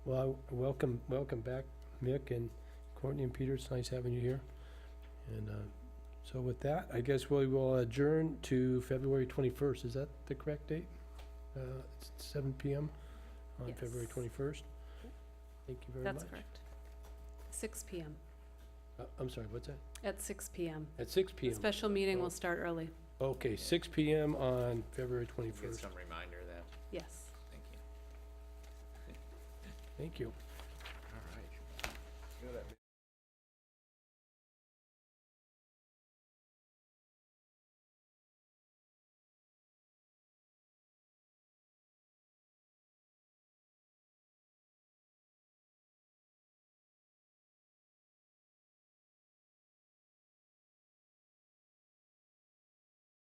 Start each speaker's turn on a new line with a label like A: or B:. A: Well, I- welcome, welcome back, Mick and Courtney and Peter. It's nice having you here. And uh, so with that, I guess we will adjourn to February 21st. Is that the correct date? Uh, It's 7 PM on February
B: Yes.
A: 21st? Thank you very much.
B: That's correct. Six PM,
A: Uh, I'm sorry, what's that?
B: at six PM.
A: At 6 PM?
B: Special meeting
A: Oh.
B: will start early,
A: Okay, 6 PM on February
C: You Get
A: 21st.
C: some reminder of that,
B: yes.
C: thank you.
A: Thank you.
C: All right.